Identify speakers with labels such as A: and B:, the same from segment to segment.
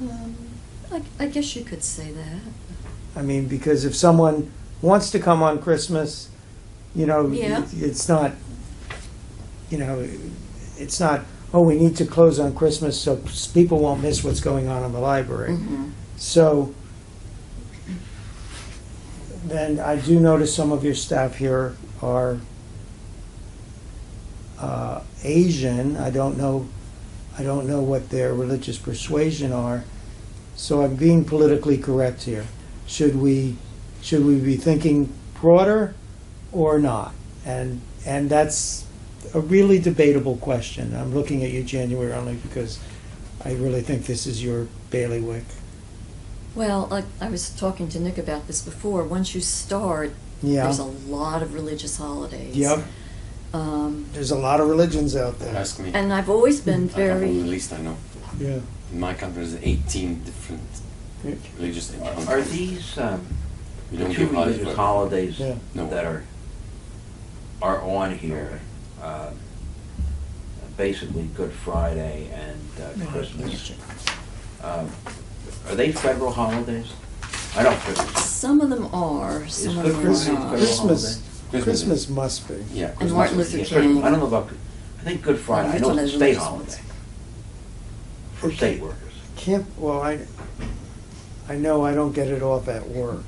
A: Um, I, I guess you could say that.
B: I mean, because if someone wants to come on Christmas, you know,
A: Yeah.
B: it's not, you know, it's not, oh, we need to close on Christmas so people won't miss what's going on in the library.
A: Mm-hmm.
B: So then I do notice some of your staff here are uh, Asian. I don't know, I don't know what their religious persuasion are. So I'm being politically correct here. Should we, should we be thinking broader or not? And, and that's a really debatable question. I'm looking at you, January, only because I really think this is your bailiwick.
A: Well, I, I was talking to Nick about this before. Once you start,
B: Yeah.
A: there's a lot of religious holidays.
B: Yep.
A: Um,
B: There's a lot of religions out there.
C: Ask me.
A: and I've always been
C: I come from the
A: very.
C: least I know.
B: Yeah.
C: In my country, there's 18 different
B: Yeah.
C: religious
D: Are are these um,
C: We don't
D: two
C: give holidays, but-
D: religious holidays
B: Yeah.
C: No.
D: that are, are on here? uh, Basically Good Friday and uh, Christmas. um, Are they federal holidays? I don't, think-
A: Some of them are,
D: is
A: some
D: Good
A: of them
B: Christmas-
A: are
D: Friday a
A: not.
D: federal
B: Christmas.
D: holiday?
C: Christmas.
B: Christmas must be.
C: Yeah,
A: And Martin Luther
C: Christmas.
D: Yeah,
A: King.
D: Christmas- I don't know about, I think Good Friday, I
A: that's
D: know
A: one
D: it's a
A: of the
D: state
A: religious ones.
D: holiday for state workers.
B: Can't, well, I, I know I don't get it off at work.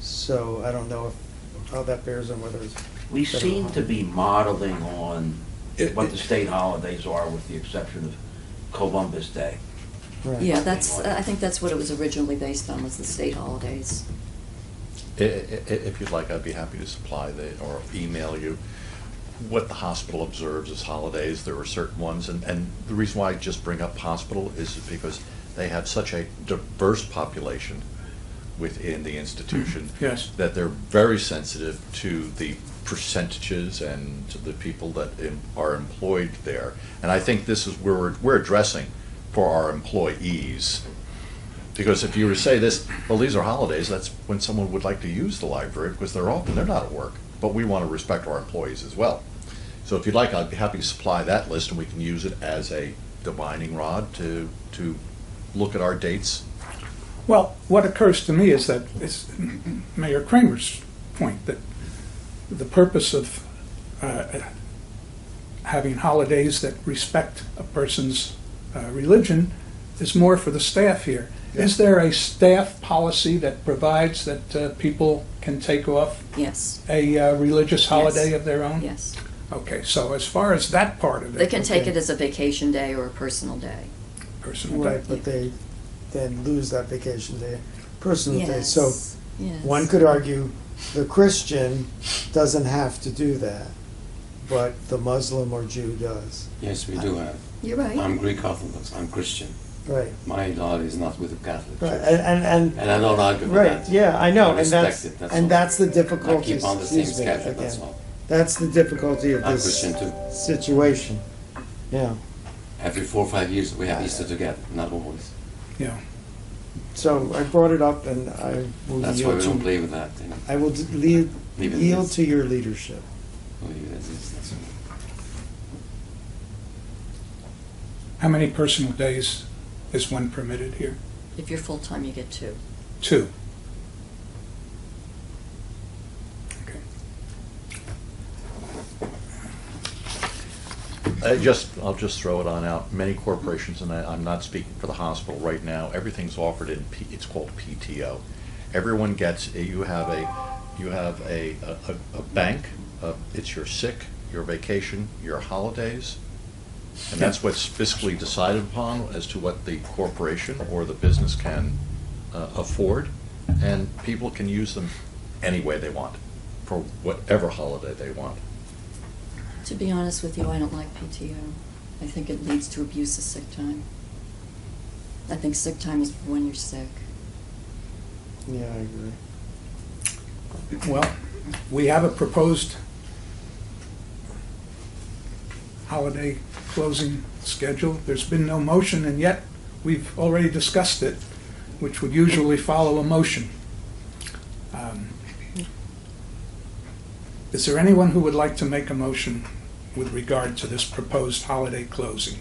B: So I don't know if, how that bears on whether it's.
D: We
B: federal
D: seem to be modeling on
E: It-
D: what the state holidays are with the exception of Columbus Day.
B: Right.
A: Yeah, that's. I think that's what it was originally based on was the state holidays.
E: I- I- i- If you'd like, I'd be happy to supply the, or email you what the hospital observes as holidays. There are certain ones, and, and the reason why I just bring up hospital is because they have such a diverse population within the institution.
D: Yes.
E: That they're very sensitive to the percentages and to the people that em- are employed there. And I think this is where we're, we're addressing for our employees. Because if you were to say this, well, these are holidays, that's when someone would like to use the library because they're open, they're not at work. But we want to respect our employees as well. So if you'd like, I'd be happy to supply that list and we can use it as a divining rod to, to look at our dates.
F: Well, what occurs to me is that it's Mayor Kramer's point that the purpose of uh, having holidays that respect a person's uh, religion is more for the staff here. Is there a staff policy that provides that uh, people can take off
A: Yes,
F: a uh, religious holiday
A: Yes.
F: of their own?
A: yes.
F: Okay, so as far as that part of it.
A: They can take
F: okay,
A: it as a vacation day or a personal day.
F: Personal
B: Right,
F: day.
B: but they then lose that vacation day, personal day.
A: yes.
B: So
A: yes.
B: one could argue the Christian doesn't have to do that, but the Muslim or Jew does.
C: Yes, we do have.
A: You're right.
C: I'm Greek Orthodox. I'm Christian.
B: Right,
C: My holiday is not with the Catholic
B: right.
C: Church.
B: And, and,
C: And I don't argue with
B: Right,
C: that.
B: yeah, I
C: I
B: know, and
C: respect
B: that's,
C: it, that's
B: and
C: all.
B: that's the
C: I
B: difficulty,
C: keep on the same
B: excuse me,
C: schedule, that's
B: again.
C: all.
B: That's the difficulty of
C: I'm Christian
B: this
C: too.
B: situation, yeah.
C: Every four or five years, we have Easter together, not always.
F: Yeah.
B: So I brought it up and I will
C: That's why
B: yield
C: we don't
B: to,
C: play with that, you know.
B: I will d- lead-
C: Leave it
B: yield
C: is.
B: to your leadership.
C: We leave it as is, that's all.
F: How many personal days is one permitted here?
A: If you're full time, you get two.
F: Two. Okay.
E: I Uh, just, I'll just throw it on out. Many corporations, and I, I'm not speaking for the hospital right now, everything's offered in, P- it's called PTO. Everyone gets, you have a, you have a, a, a- a bank, uh, it's your sick, your vacation, your holidays. And that's what's fiscally decided upon as to what the corporation or the business can uh, afford. And people can use them any way they want, for whatever holiday they want.
A: To be honest with you, I don't like PTO. I think it leads to abuse of sick time. I think sick time is when you're sick.
B: Yeah, I agree.
F: Well, we have a proposed holiday closing schedule. There's been no motion, and yet we've already discussed it, which would usually follow a motion. Um, Is there anyone who would like to make a motion with regard to this proposed holiday closing?